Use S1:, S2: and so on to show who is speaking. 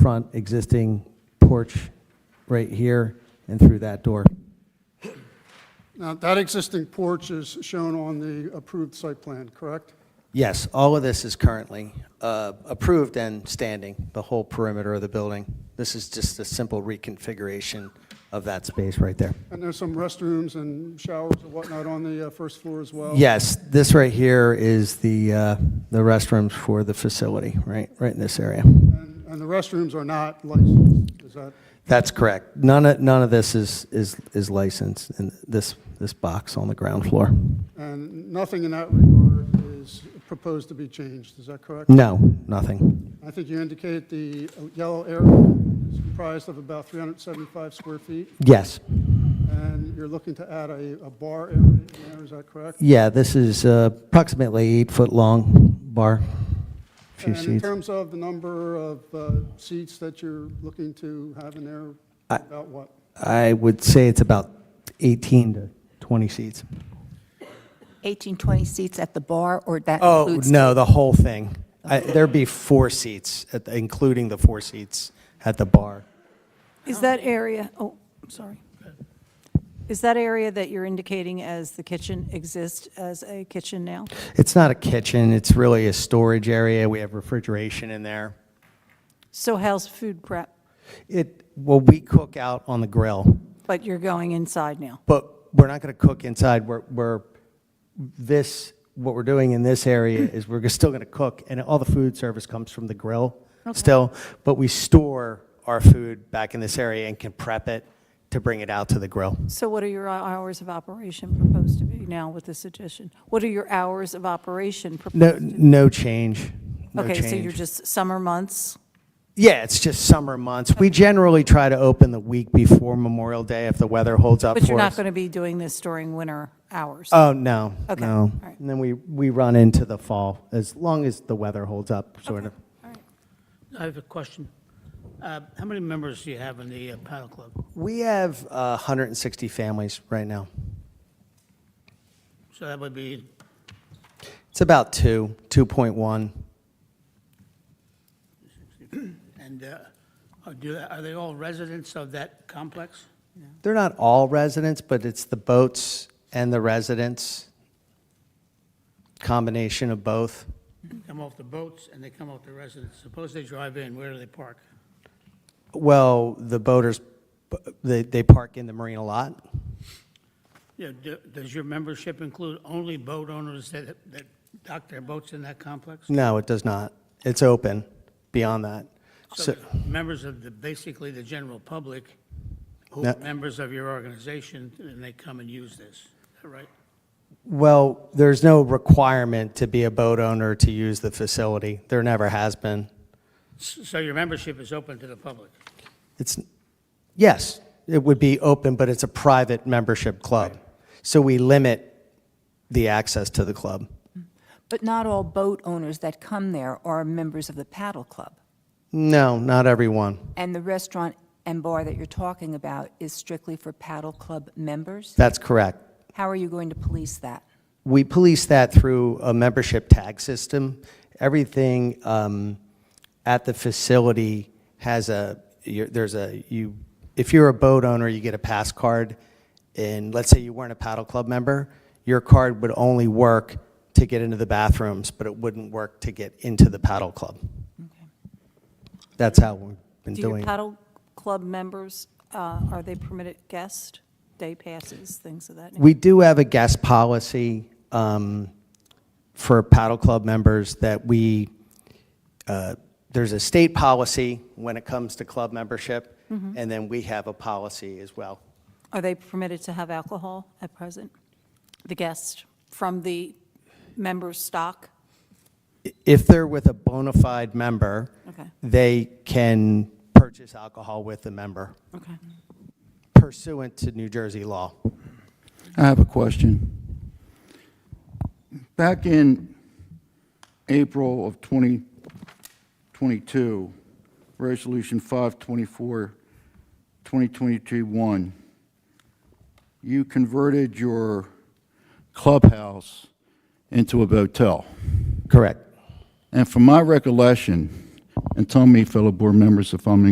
S1: front existing porch right here and through that door.
S2: Now, that existing porch is shown on the approved site plan, correct?
S1: Yes, all of this is currently uh, approved and standing, the whole perimeter of the building. This is just a simple reconfiguration of that space right there.
S2: And there's some restrooms and showers and whatnot on the uh, first floor as well?
S1: Yes, this right here is the, uh, the restrooms for the facility, right, right in this area.
S2: And and the restrooms are not licensed, is that?
S1: That's correct. None of, none of this is, is is licensed in this, this box on the ground floor.
S2: And nothing in that regard is proposed to be changed, is that correct?
S1: No, nothing.
S2: I think you indicate the uh, yellow area is comprised of about 375 square feet,
S1: Yes.
S2: and you're looking to add a a bar area in there, is that correct?
S1: Yeah, this is uh, approximately eight-foot-long bar, few
S2: And in
S1: seats.
S2: terms of the number of uh, seats that you're looking to have in there,
S1: I-
S2: about what?
S1: I would say it's about 18 to 20 seats.
S3: 18, 20 seats at the bar, or that
S1: Oh,
S3: includes?
S1: no, the whole thing. I- There'd be four seats, at the- including the four seats at the bar.
S4: Is that area, oh, I'm sorry. Is that area that you're indicating as the kitchen exist as a kitchen now?
S1: It's not a kitchen, it's really a storage area. We have refrigeration in there.
S4: So how's food prep?
S1: It, well, we cook out on the grill,
S4: But you're going inside now.
S1: but we're not going to cook inside. We're, we're, this, what we're doing in this area
S4: Mm.
S1: is we're still going to cook, and all the food service comes from the grill still, but we store our food back in this area and can prep it to bring it out to the grill.
S4: So what are your hours of operation proposed to be now with this addition? What are your hours of operation proposed?
S1: No, no change, no
S4: Okay, so you're
S1: change.
S4: just summer months?
S1: Yeah, it's just summer months. We generally try to open the week before Memorial Day if the weather holds up for us.
S4: But you're not going to be doing this during winter hours?
S1: Oh, no,
S4: Okay,
S1: no.
S4: all right.
S1: And then we, we run into the fall, as long as the weather holds up, sort of.
S5: I have a question. Uh, How many members do you have in the uh, paddle club?
S1: We have uh, 160 families right now.
S5: So that would be,
S1: It's about two, 2.1.
S5: and uh, are do- are they all residents of that complex?
S1: They're not all residents, but it's the boats and the residents, combination of both.
S5: Come off the boats and they come off the residents. Suppose they drive in, where do they park?
S1: Well, the boaters, they, they park in the marina lot.
S5: You know, do- Does your membership include only boat owners that that dock their boats in that complex?
S1: No, it does not. It's open beyond that. So,
S5: Members of the, basically the general public, who
S1: No.
S5: are members of your organization, and they come and use this, is that right?
S1: well, there's no requirement to be a boat owner to use the facility. There never has been.
S5: S- So your membership is open to the public?
S1: It's, yes, it would be open, but it's a private membership club. So we limit the access to the club.
S3: But not all boat owners that come there are members of the paddle club.
S1: No, not everyone.
S3: And the restaurant and bar that you're talking about is strictly for paddle club members?
S1: That's correct.
S3: How are you going to police that?
S1: We police that through a membership tag system. Everything um, at the facility has a, you're- there's a, you, if you're a boat owner, you get a pass card. And let's say you weren't a paddle club member, your card would only work to get into the bathrooms, but it wouldn't work to get into the paddle club. That's how we've been
S4: Do your
S1: doing. it.
S4: paddle club members, uh, are they permitted guests, day passes, things of that nature?
S1: We do have a guest policy um, for paddle club members that we, uh, there's a state policy when it comes to club membership,
S4: Mm-hmm.
S1: and then we have a policy as well.
S4: Are they permitted to have alcohol at present? The guests from the members' stock?
S1: I- If they're with a bona fide member,
S4: Okay.
S1: they can purchase alcohol with the member
S4: Okay.
S1: pursuant to New Jersey law.
S6: I have a question. Back in April of 2022, Resolution 524, 2022-1, you converted your clubhouse into a motel.
S1: Correct.
S6: And from my recollection, And tell me, fellow board members, if I'm